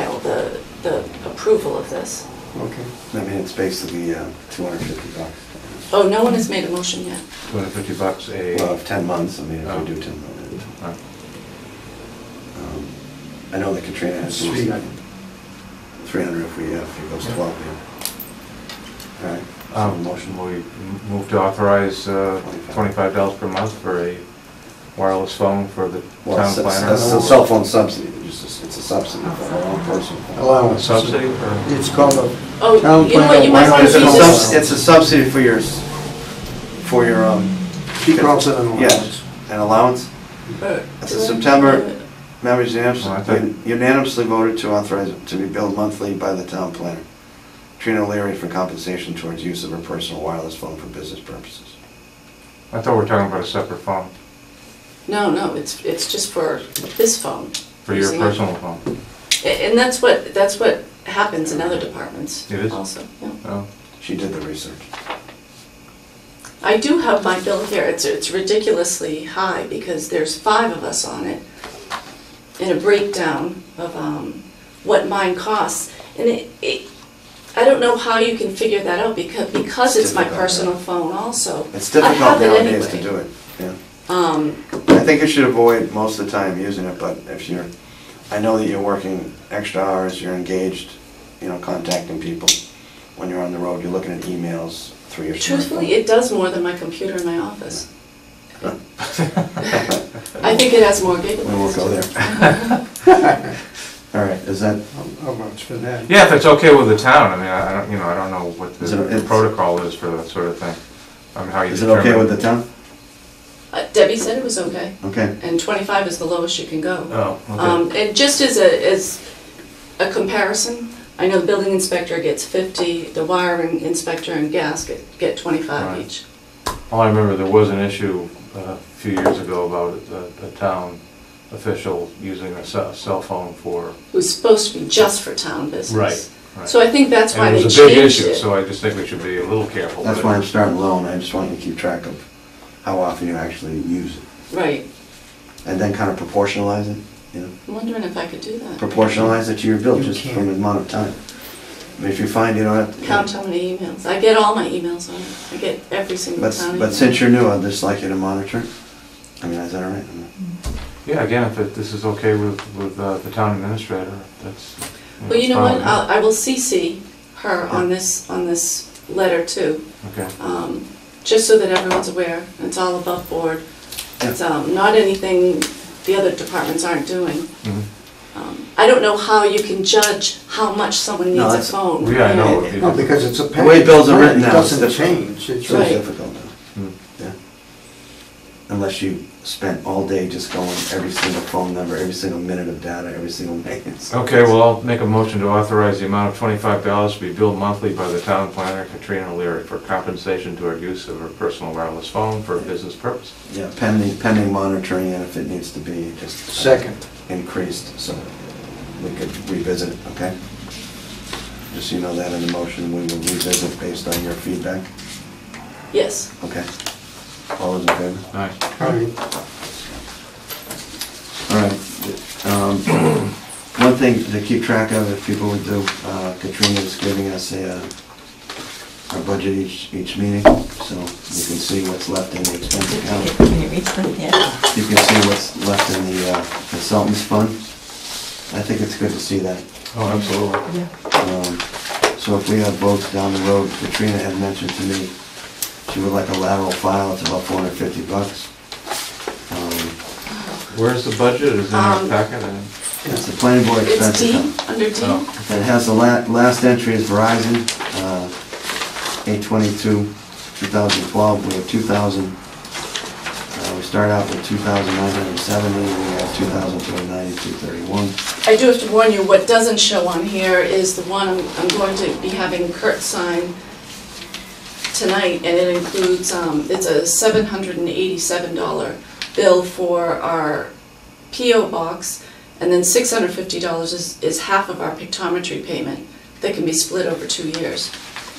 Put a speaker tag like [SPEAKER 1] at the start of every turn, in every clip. [SPEAKER 1] file the, the approval of this.
[SPEAKER 2] Okay, I mean, it's basically uh, 250 bucks.
[SPEAKER 1] Oh, no one has made a motion yet.
[SPEAKER 3] 250 bucks a...
[SPEAKER 2] Well, if 10 months, I mean, if
[SPEAKER 3] Oh.
[SPEAKER 2] we do 10 months.
[SPEAKER 3] Alright.
[SPEAKER 2] Um, I know that Katrina has
[SPEAKER 3] Sweet.
[SPEAKER 2] 300 if we, uh, if it goes 12 here. All right, so
[SPEAKER 3] Um,
[SPEAKER 2] motion.
[SPEAKER 3] Motion, we m- move to authorize uh,
[SPEAKER 2] Twenty-five.
[SPEAKER 3] $25 per month for a wireless phone for the
[SPEAKER 2] Well,
[SPEAKER 3] town
[SPEAKER 2] it's- it's-
[SPEAKER 3] planner.
[SPEAKER 2] That's a cell phone subsidy, it's just- it's a subsidy for our own personal.
[SPEAKER 3] A
[SPEAKER 4] Allowance.
[SPEAKER 3] Subsidy or?
[SPEAKER 4] It's called a,
[SPEAKER 1] Oh,
[SPEAKER 4] Town
[SPEAKER 1] you know what,
[SPEAKER 4] planner,
[SPEAKER 1] you
[SPEAKER 4] why
[SPEAKER 1] might
[SPEAKER 4] don't
[SPEAKER 1] want
[SPEAKER 2] It's
[SPEAKER 1] to
[SPEAKER 4] you
[SPEAKER 2] a
[SPEAKER 1] read
[SPEAKER 4] don't-
[SPEAKER 1] this.
[SPEAKER 2] subs- it's a subsidy for your, s- for your, um,
[SPEAKER 4] she calls it an allowance.
[SPEAKER 2] yes, an allowance.
[SPEAKER 1] Uh,
[SPEAKER 2] It's
[SPEAKER 1] do
[SPEAKER 2] a
[SPEAKER 1] I-
[SPEAKER 2] September- Members
[SPEAKER 3] Well, I thought-
[SPEAKER 2] unanimously unanimously voted to authorize it to be billed monthly by the town planner, Trina O'Leary, for compensation towards use of her personal wireless phone for business purposes.
[SPEAKER 3] I thought we were talking about a separate phone,
[SPEAKER 1] No, no, it's, it's just for this phone.
[SPEAKER 3] for your
[SPEAKER 1] Using it.
[SPEAKER 3] personal phone.
[SPEAKER 1] A- And that's what, that's what happens in other departments
[SPEAKER 3] It is?
[SPEAKER 1] also. yeah.
[SPEAKER 3] Oh,
[SPEAKER 2] She did the research.
[SPEAKER 1] I do have my bill here, it's, it's ridiculously high because there's five of us on it. And a breakdown of, um, what mine costs. And it, it, I don't know how you can figure that out because, because it's my
[SPEAKER 2] Difficult, yeah.
[SPEAKER 1] personal phone also.
[SPEAKER 2] It's
[SPEAKER 1] I
[SPEAKER 2] difficult
[SPEAKER 1] have it
[SPEAKER 2] nowadays to
[SPEAKER 1] anyway.
[SPEAKER 2] do it, yeah.
[SPEAKER 1] Um,
[SPEAKER 2] I think you should avoid most of the time using it, but if you're, I know that you're working extra hours, you're engaged, you know, contacting people. When you're on the road, you're looking at emails through your smartphone.
[SPEAKER 1] truthfully, it does more than my computer in my office.
[SPEAKER 2] Huh.
[SPEAKER 1] I think it has more gigabytes.
[SPEAKER 2] We will go there. All right, is that,
[SPEAKER 4] How much for that?
[SPEAKER 3] Yeah, if it's okay with the town, I mean, I I don't, you know, I don't know what
[SPEAKER 2] Is it-
[SPEAKER 3] the
[SPEAKER 2] it's-
[SPEAKER 3] protocol is for that sort of thing. I mean, how you
[SPEAKER 2] is it okay with
[SPEAKER 3] determine...
[SPEAKER 2] the town?
[SPEAKER 1] Uh, Debbie said it was okay,
[SPEAKER 2] Okay.
[SPEAKER 1] and twenty-five is the lowest you can go.
[SPEAKER 3] Oh,
[SPEAKER 1] Um,
[SPEAKER 3] okay.
[SPEAKER 1] And just as a, as a comparison, I know the building inspector gets 50, the wiring inspector and gas get, get 25
[SPEAKER 3] Right.
[SPEAKER 1] each.
[SPEAKER 3] All I remember, there was an issue uh, a few years ago about a- a town official using a ce- cell phone for
[SPEAKER 1] Who's supposed to be just for town
[SPEAKER 3] Right,
[SPEAKER 1] business.
[SPEAKER 3] right.
[SPEAKER 1] So I think that's why
[SPEAKER 3] And
[SPEAKER 1] they
[SPEAKER 3] it was a big
[SPEAKER 1] changed
[SPEAKER 3] issue,
[SPEAKER 1] it.
[SPEAKER 3] so I just think we should be a little careful.
[SPEAKER 2] That's
[SPEAKER 3] with
[SPEAKER 2] why
[SPEAKER 3] it.
[SPEAKER 2] I'm starting low, and I just want you to keep track of how often you actually use it,
[SPEAKER 1] Right.
[SPEAKER 2] and then kind of proportionalize it, you know?
[SPEAKER 1] I'm wondering if I could do that.
[SPEAKER 2] Proportionalize it to your bill,
[SPEAKER 4] You
[SPEAKER 2] just
[SPEAKER 4] can't.
[SPEAKER 2] from the amount of time. I mean, If you find you don't have to...
[SPEAKER 1] Count how many emails. I get all my emails on it. I get every single
[SPEAKER 2] But,
[SPEAKER 1] town.
[SPEAKER 2] but
[SPEAKER 1] email.
[SPEAKER 2] since you're new, I'd just like you to monitor it. I mean, is that all right? I mean,
[SPEAKER 3] Yeah, again, if it- this is okay with, with uh, the town administrator, that's.
[SPEAKER 1] Well, you know what,
[SPEAKER 3] fine.
[SPEAKER 1] I'll- I will CC her on this, on this letter too.
[SPEAKER 3] Okay,
[SPEAKER 1] um, just so that everyone's aware, it's all above board. It's um, not anything the other departments aren't doing.
[SPEAKER 3] Mhm.
[SPEAKER 1] Um, I don't know how you can judge how much someone
[SPEAKER 2] No,
[SPEAKER 1] needs a
[SPEAKER 2] that's-
[SPEAKER 1] phone.
[SPEAKER 3] yeah, I know.
[SPEAKER 1] It-
[SPEAKER 3] it-
[SPEAKER 4] No, because it's a.
[SPEAKER 2] The way bills are written now.
[SPEAKER 4] It
[SPEAKER 2] it's
[SPEAKER 4] doesn't
[SPEAKER 2] different.
[SPEAKER 4] change. It's
[SPEAKER 2] It's really
[SPEAKER 1] Right.
[SPEAKER 2] difficult now,
[SPEAKER 3] Hmm.
[SPEAKER 2] yeah. Unless you spent all day just going every single phone number, every single minute of data, every single minute.
[SPEAKER 3] Okay, well, I'll make a motion to authorize the amount of twenty-five dollars to be billed monthly by the town planner Katrina O'Leary for compensation to her use of her personal wireless phone for business purpose.
[SPEAKER 2] Yeah, pending, pending monitoring, and if it needs to be just. uh,
[SPEAKER 4] Second.
[SPEAKER 2] Increased, so we could revisit it, okay? Just so you know that in the motion, we will revisit based on your feedback,
[SPEAKER 1] Yes,
[SPEAKER 2] okay? All those in favor?
[SPEAKER 3] Nice.
[SPEAKER 4] All right.
[SPEAKER 2] All right. um, One thing to keep track of, if people would do, uh, Katrina's giving us a, uh, our budget each, each meeting, so you can see what's left in the expense account.
[SPEAKER 5] Can you reach them? Yeah.
[SPEAKER 2] You can see what's left in the uh, consultants fund. I think it's good to see that.
[SPEAKER 3] Oh, absolutely.
[SPEAKER 2] Um, So if we have votes down the road, Katrina had mentioned to me, she would like a lateral file, it's about four hundred fifty bucks. Um,
[SPEAKER 3] Where's the budget? Is it in our
[SPEAKER 1] Um,
[SPEAKER 3] packet? I-
[SPEAKER 2] It's the planning board
[SPEAKER 1] it's
[SPEAKER 2] expense
[SPEAKER 1] D,
[SPEAKER 2] account.
[SPEAKER 1] under D.
[SPEAKER 3] Oh.
[SPEAKER 2] It has the la- last entry is Verizon, uh, 822, 2012, we have 2,000, uh, we start out with 2,970, we have 2,290, 231.
[SPEAKER 1] I do have to warn you, what doesn't show on here is the one I'm I'm going to be having Kurt sign tonight, and it includes, um, it's a $787 bill for our PO box, and then $650 is is half of our pictometry payment that can be split over two years,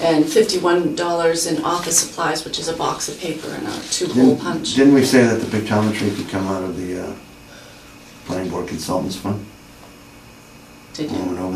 [SPEAKER 1] and $51 in office supplies, which is a box of paper and a two-hole
[SPEAKER 2] Didn't-
[SPEAKER 1] punch.
[SPEAKER 2] Didn't we say that the pictometry could come out of the uh, planning board consultants fund?
[SPEAKER 1] Did you?
[SPEAKER 2] Moving over